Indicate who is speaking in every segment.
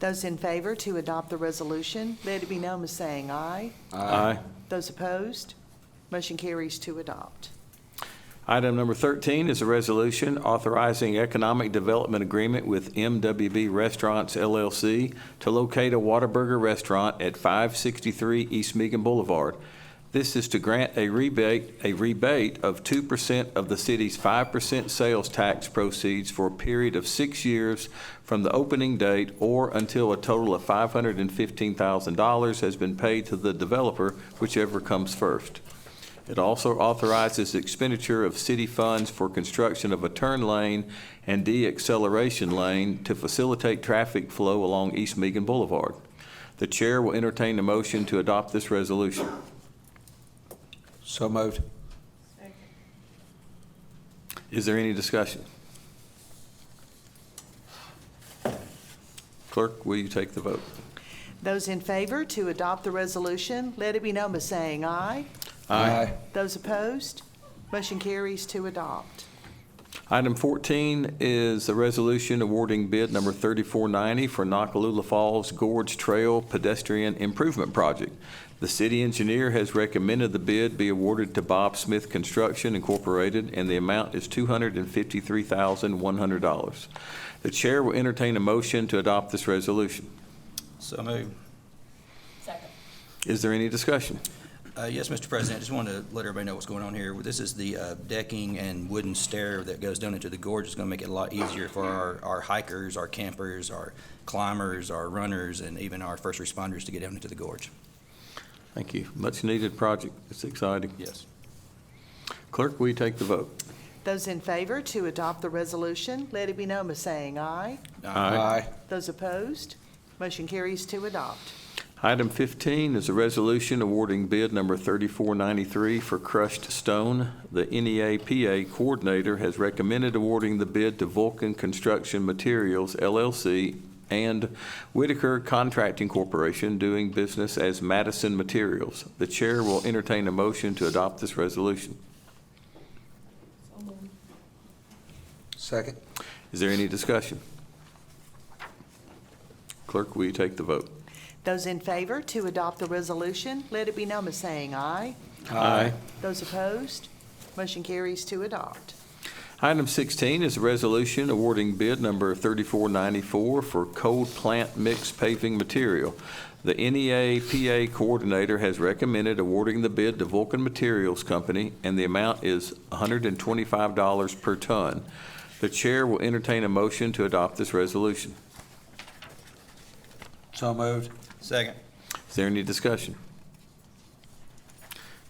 Speaker 1: Those in favor to adopt the resolution, let it be known as saying aye.
Speaker 2: Aye.
Speaker 1: Those opposed, motion carries to adopt.
Speaker 2: Item number 13 is a resolution authorizing economic development agreement with MWB Restaurants LLC to locate a Whataburger restaurant at 563 East Meagan Boulevard. This is to grant a rebate, a rebate of 2% of the city's 5% sales tax proceeds for a period of six years from the opening date or until a total of $515,000 has been paid to the developer, whichever comes first. It also authorizes expenditure of city funds for construction of a turn lane and de-acceleration lane to facilitate traffic flow along East Meagan Boulevard. The chair will entertain a motion to adopt this resolution.
Speaker 3: So moved.
Speaker 2: Is there any discussion? Clerk, will you take the vote?
Speaker 1: Those in favor to adopt the resolution, let it be known by saying aye. Those opposed, motion carries to adopt.
Speaker 2: Item 14 is a resolution awarding bid number 3490 for Nakalula Falls Gorge Trail Pedestrian Improvement Project. The city engineer has recommended the bid be awarded to Bob Smith Construction Incorporated, and the amount is $253,100. The chair will entertain a motion to adopt this resolution.
Speaker 4: So moved.
Speaker 5: Second.
Speaker 2: Is there any discussion?
Speaker 4: Uh, Yes, Mr. President, I just wanted to let everybody know what's going on here. This is the uh, decking and wooden stair that goes down into the gorge. It's going to make it a lot easier for our our hikers, our campers, our climbers, our runners, and even our first responders to get down into the gorge.
Speaker 2: Thank you. Much-needed project. It's exciting.
Speaker 4: Yes.
Speaker 2: Clerk, will you take the vote?
Speaker 1: Those in favor to adopt the resolution, let it be known by saying aye.
Speaker 3: Aye.
Speaker 1: Those opposed, motion carries to adopt.
Speaker 2: Item 15 is a resolution awarding bid number 3493 for crushed stone. The E NEAPA Coordinator has recommended awarding the bid to Vulcan Construction Materials LLC and Whitaker Contracting Corporation, doing business as Madison Materials. The Chair will entertain a motion to adopt this resolution.
Speaker 3: Second.
Speaker 2: Is there any discussion? Clerk, will you take the vote?
Speaker 1: Those in favor to adopt the resolution, let it be known by saying aye. Those opposed, motion carries to adopt.
Speaker 2: Item 16 is a resolution awarding bid number 3494 for cold plant mix paving material. The E NEA PA Coordinator has recommended awarding the bid to Vulcan Materials Company, and the amount is $125 per ton. The Chair will entertain a motion to adopt this resolution.
Speaker 3: So moved.
Speaker 4: Second.
Speaker 2: Is there any discussion?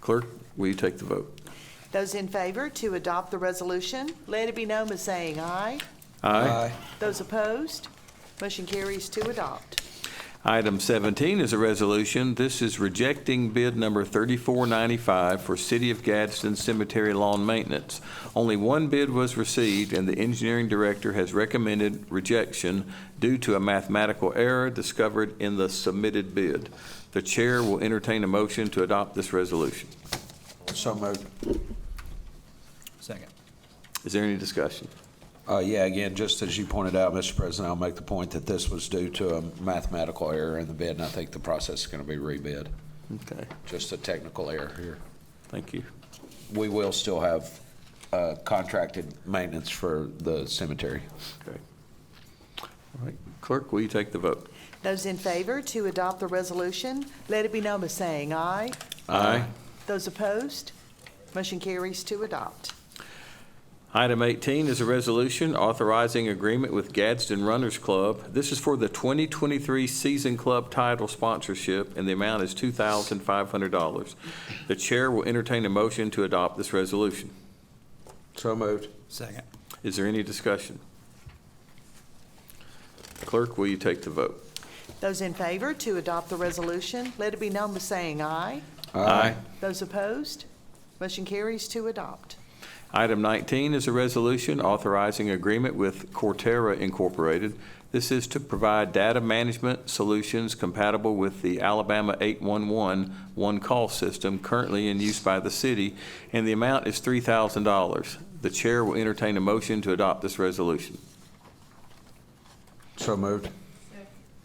Speaker 2: Clerk, will you take the vote?
Speaker 1: Those in favor to adopt the resolution, let it be known by saying aye. Those opposed, motion carries to adopt.
Speaker 2: Item 17 is a resolution. This is rejecting bid number 3495 for City of Gadsden Cemetery Lawn Maintenance. Only one bid was received, and the engineering director has recommended rejection due to a mathematical error discovered in the submitted bid. The chair will entertain a motion to adopt this resolution.
Speaker 3: So moved.
Speaker 4: Second.
Speaker 2: Is there any discussion?
Speaker 3: Uh, Yeah, again, just as you pointed out, Mr. President, I'll make the point that this was due to a mathematical error in the bid, and I think the process is going to be rebid,
Speaker 2: Okay,
Speaker 3: just a technical error here.
Speaker 2: thank you.
Speaker 3: We will still have uh, contracted maintenance for the cemetery.
Speaker 2: Okay. All right, clerk, will you take the vote?
Speaker 1: Those in favor to adopt the resolution, let it be known by saying aye.
Speaker 2: Aye.
Speaker 1: Those opposed, motion carries to adopt.
Speaker 2: Item 18 is a resolution authorizing agreement with Gadsden Runners Club. This is for the 2023 season club title sponsorship, and the amount is $2,500. The chair will entertain a motion to adopt this resolution.
Speaker 3: So moved.
Speaker 4: Second.
Speaker 2: Is there any discussion? Clerk, will you take the vote?
Speaker 1: Those in favor to adopt the resolution, let it be known by saying aye. Those opposed, motion carries to adopt.
Speaker 2: Item 19 is a resolution authorizing agreement with Cortera Incorporated. This is to provide data management solutions compatible with the Alabama 811 one-call system currently in use by the city, and the amount is $3,000. The chair will entertain a motion to adopt this resolution.
Speaker 3: So moved.